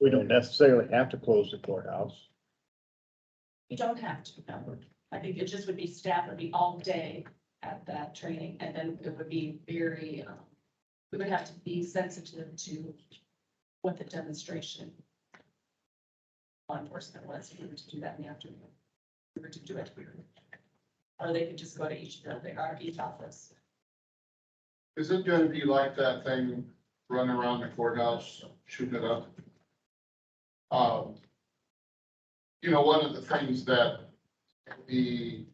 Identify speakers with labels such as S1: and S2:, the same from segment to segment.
S1: We don't necessarily have to close the courthouse.
S2: You don't have to, no. I think it just would be staff would be all day at that training and then it would be very, um, we would have to be sensitive to what the demonstration law enforcement was, if we were to do that in the afternoon. If We were to do it. we were- Or they could just go to each building or each office.
S3: Is it gonna be like that thing running around the courthouse, shooting it up? Um, you know, one of the things that would be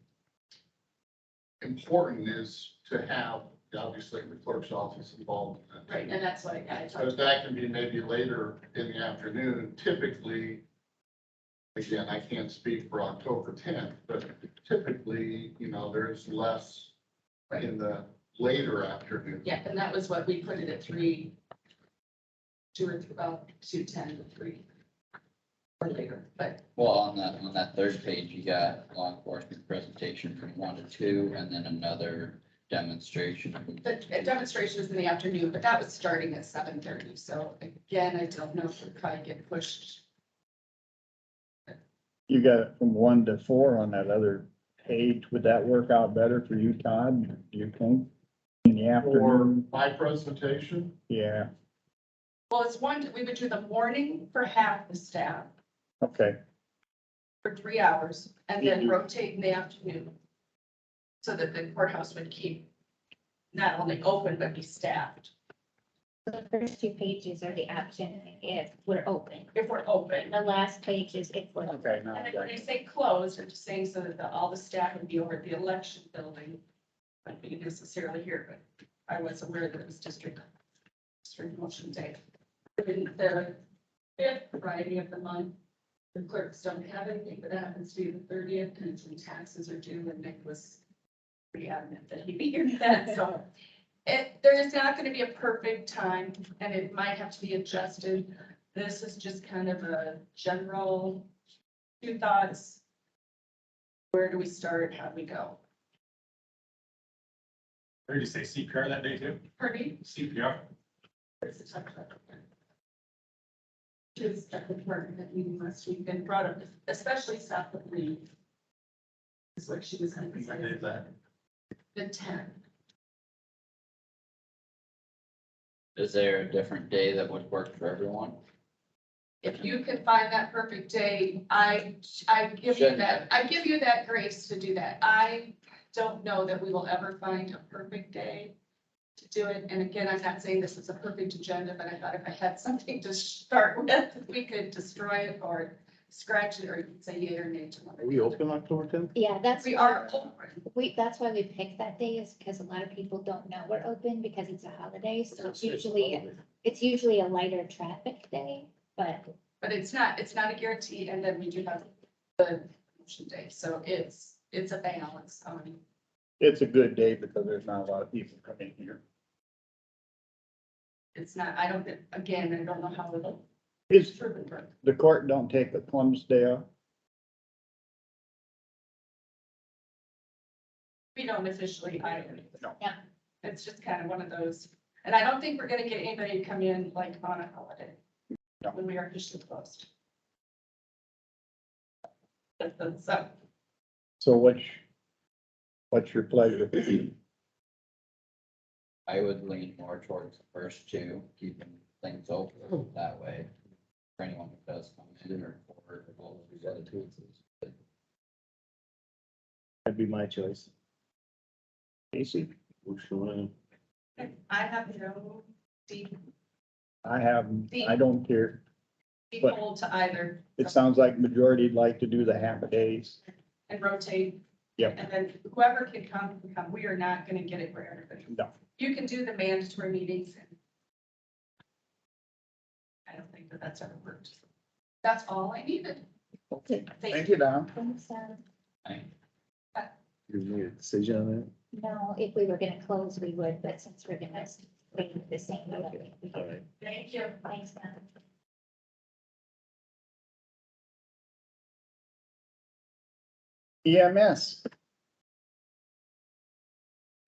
S3: important is to have, obviously, the clerk's office involved. in that.
S2: Right, and that's what I talked
S3: But that can be maybe later in the afternoon, typically, again, I can't speak for October tenth, but typically, you know, there's less in the later afternoon.
S2: Yeah, and that was what we put it at three, two or th- about two ten to three or later, but
S4: Well, on that, on that third page, you got law enforcement presentation from one to two and then another demonstration.
S2: the the demonstration is in the afternoon, but that was starting at seven thirty, so again, I don't know if we'll probably get pushed.
S1: You got it from one to four on that other page. Would that work out better for you, Todd? Do you think? In the
S3: For
S1: afternoon?
S3: my presentation,
S1: Yeah,
S2: Well, it's one, we would do the morning for half the staff
S1: okay.
S2: for three hours and then
S1: Mhm.
S2: rotate in the afternoon. So that the courthouse would keep not only open, but be staffed.
S5: The first two pages are the option if we're open.
S2: If we're open,
S5: The last page is if we're. open.
S1: Okay, now
S2: And
S1: I
S2: then when
S1: got
S2: they
S1: it.
S2: say closed, I'm just saying so that the- all the staff would be over at the election building. Wouldn't be necessarily here, but I was aware that it was district, district motion day. In the fifth Friday of the month, the clerks don't have anything, but that happens to be the thirtieth, and it's when taxes are due, and Nick was pretty adamant that he'd be here for that, so. It, there is not gonna be a perfect time, and it might have to be adjusted. This is just kind of a general two thoughts. Where do we start? How do we go?
S6: Or you say CPR that day too?
S2: Pardon
S6: CPR?
S2: There's a talk about. To the stuff department that meeting last week and brought up, especially South of Lee. Is what she was
S6: What day
S2: emphasizing,
S6: is that?
S2: the ten.
S4: Is there a different day that would work for everyone?
S2: If you can find that perfect day, I, I give you that, I give you that grace to do that. I don't know that we will ever find a perfect day to do it. And again, I'm not saying this is a perfect agenda, but I thought if I had something to start with, we could destroy it or scratch it, or you could say yay or nay to one.
S7: Are we open October tenth?
S5: Yeah, that's.
S2: We are open.
S5: We, that's why we picked that day is because a lot of people don't know we're open because it's a holiday. So it's usually, it's usually a lighter traffic day, but
S2: But it's not, it's not a guarantee, and then we do have the motion day, so it's, it's a balance Um, on.
S1: It's a good day because there's not a lot of people coming here.
S2: It's not, I don't, again, I don't know how it'll.
S1: Is,
S2: True, but-
S1: the court don't take the Columbus Day off?
S2: We don't officially either.
S1: No.
S5: Yeah.
S2: It's just kind of one of those, and I don't think we're gonna get anybody to come in like on a holiday.
S1: No.
S2: When we are officially closed. That's- that's- So,
S1: So what's, what's your pleasure?
S4: I would lean more towards the first two, keeping things open that way for anyone who does come in or for all of these other two.
S7: That'd be my choice.
S1: Casey?
S7: Works for me.
S2: I have no deep,
S1: I have, I don't care.
S2: deep
S1: But-
S2: hold to either
S1: It sounds like majority'd like to do the half a days.
S2: and rotate.
S1: Yep.
S2: And then whoever can come, can come. We are not gonna get it for everybody.
S1: No.
S2: You can do the mandatory meetings. and- I don't think that that's ever worked. That's all I needed.
S1: Okay,
S2: Thank
S1: thank you, Don.
S5: so,
S4: I-
S7: You made a decision on that?
S5: no, if we were gonna close, we would, but since we're gonna stay the same. way, we
S7: All
S5: can-
S7: right.
S2: Thank you.
S5: Thanks, Donna.
S1: E EMS,
S6: So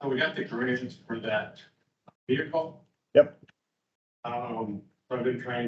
S6: Uh, we got the grades for that vehicle.
S1: Yep.
S6: Um, so I've been trying